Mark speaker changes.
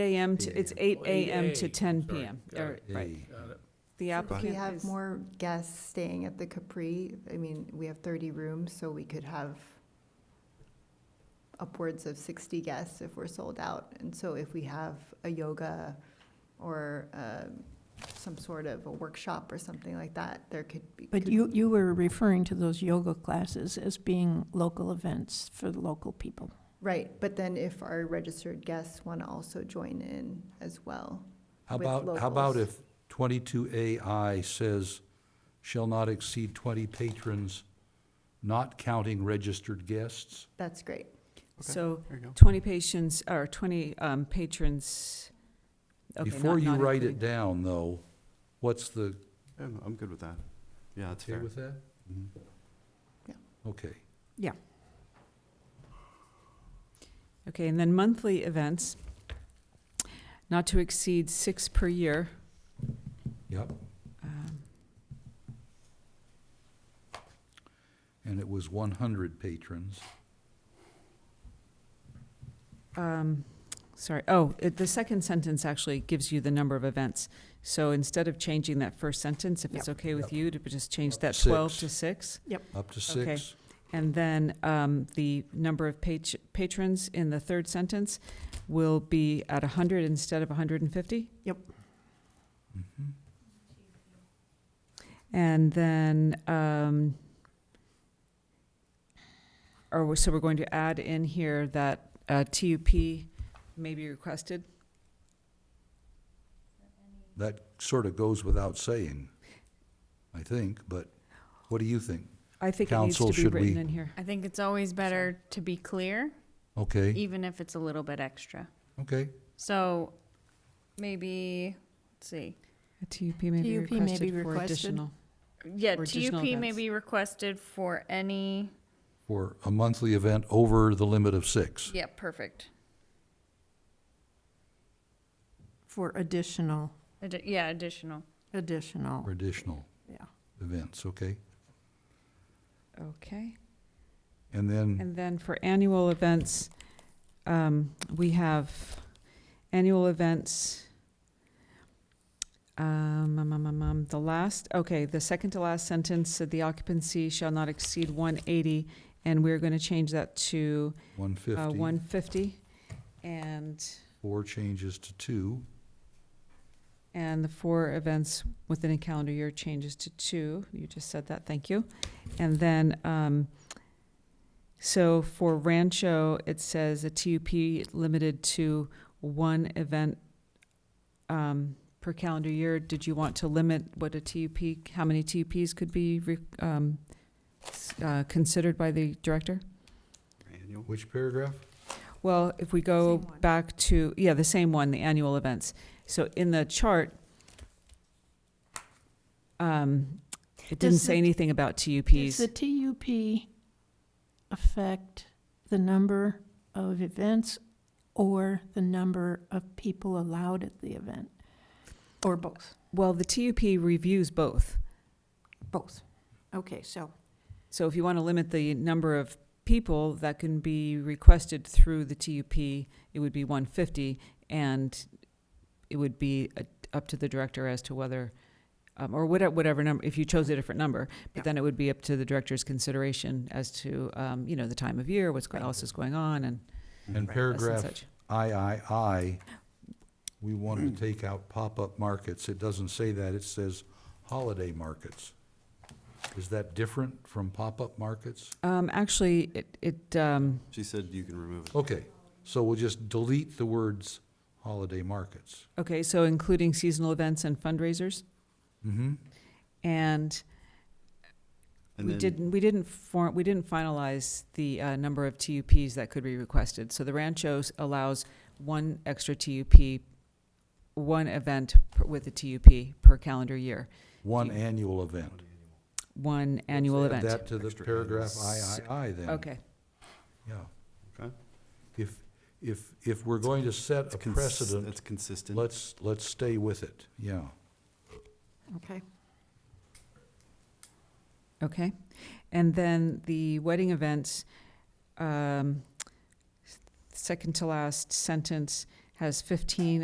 Speaker 1: AM to, it's eight AM
Speaker 2: Oh,
Speaker 1: to
Speaker 3: 8,
Speaker 1: ten
Speaker 3: sorry,
Speaker 1: PM,
Speaker 3: got
Speaker 1: or,
Speaker 3: it.
Speaker 1: right.
Speaker 3: Got it.
Speaker 1: The
Speaker 4: If we
Speaker 1: applicant
Speaker 4: have
Speaker 1: is-
Speaker 4: more guests staying at the Capri, I mean, we have 30 rooms, so we could have upwards of 60 guests if we're sold out. And so if we have a yoga or um, some sort of a workshop or something like that, there could be.
Speaker 5: But
Speaker 4: could-
Speaker 5: you, you were referring to those yoga classes as being local events for the local people.
Speaker 4: Right, but then if our registered guests want to also join in as well.
Speaker 2: How
Speaker 4: with
Speaker 2: about, how about
Speaker 4: locals.
Speaker 2: if twenty-two AI says shall not exceed twenty patrons, not counting registered guests?
Speaker 4: That's great.
Speaker 1: so
Speaker 6: There you go.
Speaker 1: twenty patients, or twenty um, patrons. okay,
Speaker 2: Before
Speaker 1: not-
Speaker 2: you
Speaker 1: not
Speaker 2: write it
Speaker 1: including-
Speaker 2: down, though, what's the,
Speaker 6: I'm, I'm good with that. Yeah, that's
Speaker 2: okay
Speaker 6: fair.
Speaker 2: with that?
Speaker 6: Mhm.
Speaker 4: Yeah.
Speaker 2: Okay.
Speaker 1: Okay, and then monthly events, not to exceed six per year.
Speaker 2: Yep,
Speaker 1: Um,
Speaker 2: and it was one hundred patrons.
Speaker 1: um, Sorry, oh, it- the second sentence actually gives you the number of events. So instead of changing that first sentence, if it's okay with
Speaker 2: Yep.
Speaker 1: you, to just change
Speaker 2: Up to
Speaker 1: that twelve
Speaker 2: six.
Speaker 1: to six.
Speaker 2: Up to
Speaker 1: Okay.
Speaker 2: six?
Speaker 1: And then um, the number of pat- patrons in the third sentence will be at 100 instead of 150?
Speaker 2: Mhm.
Speaker 1: Mm-hmm. And then, um, or, we- so we're going to add in here that uh, TUP may be requested?
Speaker 2: That sort of goes without saying, I think, but what do you think?
Speaker 1: I think it needs
Speaker 2: Counsel,
Speaker 1: to be
Speaker 2: should
Speaker 1: written
Speaker 2: we-
Speaker 1: in here.
Speaker 7: I think it's always better to be clear,
Speaker 2: Okay,
Speaker 7: even if it's a little bit extra.
Speaker 2: okay,
Speaker 7: So maybe, let's see.
Speaker 1: A TUP may be
Speaker 5: TUP may
Speaker 1: requested
Speaker 5: be
Speaker 1: for
Speaker 5: requested.
Speaker 1: additional.
Speaker 7: Yeah,
Speaker 1: Or additional
Speaker 7: TUP may
Speaker 1: events.
Speaker 7: be requested for any,
Speaker 2: for a monthly event over the limit of six.
Speaker 7: yeah, perfect.
Speaker 5: For additional,
Speaker 7: Addi- Yeah, additional.
Speaker 5: additional,
Speaker 2: for additional
Speaker 5: yeah.
Speaker 2: events, okay?
Speaker 1: Okay.
Speaker 2: And then,
Speaker 1: And then for annual events, um, we have annual events. Um, um, um, um, um, the last, okay, the second to last sentence said the occupancy shall not exceed one eighty, and we're gonna change that to,
Speaker 2: one
Speaker 1: uh, one
Speaker 2: fifty,
Speaker 1: fifty. And,
Speaker 2: four changes to two,
Speaker 1: and the four events within a calendar year changes to two, you just said that, thank you. And then, um, so for Rancho, it says a TUP limited to one event um, per calendar year. Did you want to limit what a TUP, how many TUPs could be re- um, s- uh, considered by the director?
Speaker 6: Annual.
Speaker 2: which paragraph?
Speaker 1: Well, if we go
Speaker 5: Same one.
Speaker 1: back to, yeah, the same one, the annual events. So in the chart, um, it didn't
Speaker 5: Does
Speaker 1: say
Speaker 5: the-
Speaker 1: anything about TUPs.
Speaker 5: Does the TUP affect the number of events or the number of people allowed at the event? Or both?
Speaker 1: Well, the TUP reviews both.
Speaker 5: Both. Okay, so,
Speaker 1: So if you want to limit the number of people that can be requested through the TUP, it would be one fifty, and it would be uh, up to the director as to whether, um, or whatever, whatever number, if you chose a different number,
Speaker 5: Yeah.
Speaker 1: but then it would be up to the director's consideration as to, um, you know, the time of year, what's, go- else is going on, and
Speaker 2: And
Speaker 1: such
Speaker 5: Right.
Speaker 1: and such.
Speaker 2: paragraph III, we wanted to take out pop-up markets. It doesn't say that, it says holiday markets. Is that different from pop-up markets?
Speaker 1: Um, actually, it, it, um,
Speaker 6: She said you can remove it.
Speaker 2: Okay, so we'll just delete the words holiday markets.
Speaker 1: okay, so including seasonal events and fundraisers,
Speaker 2: Mm-hmm,
Speaker 1: and
Speaker 6: And
Speaker 1: We
Speaker 6: then-
Speaker 1: didn't, we didn't form, we didn't finalize the uh, number of TUPs that could be requested. So the Rancho s- allows one extra TUP, one event per- with a TUP per calendar year,
Speaker 2: one
Speaker 1: Do
Speaker 2: annual event.
Speaker 1: one annual
Speaker 2: Let's add
Speaker 1: event.
Speaker 2: That to the
Speaker 6: Extra
Speaker 2: paragraph
Speaker 1: annuals.
Speaker 2: III then.
Speaker 1: Okay,
Speaker 2: Yeah.
Speaker 6: Okay.
Speaker 2: If, if, if we're going to set
Speaker 6: It's
Speaker 2: a
Speaker 6: cons-
Speaker 2: precedent,
Speaker 6: It's consistent.
Speaker 2: let's, let's stay with it, yeah.
Speaker 5: okay.
Speaker 1: okay. And then the wedding events, um, second to last sentence, has fifteen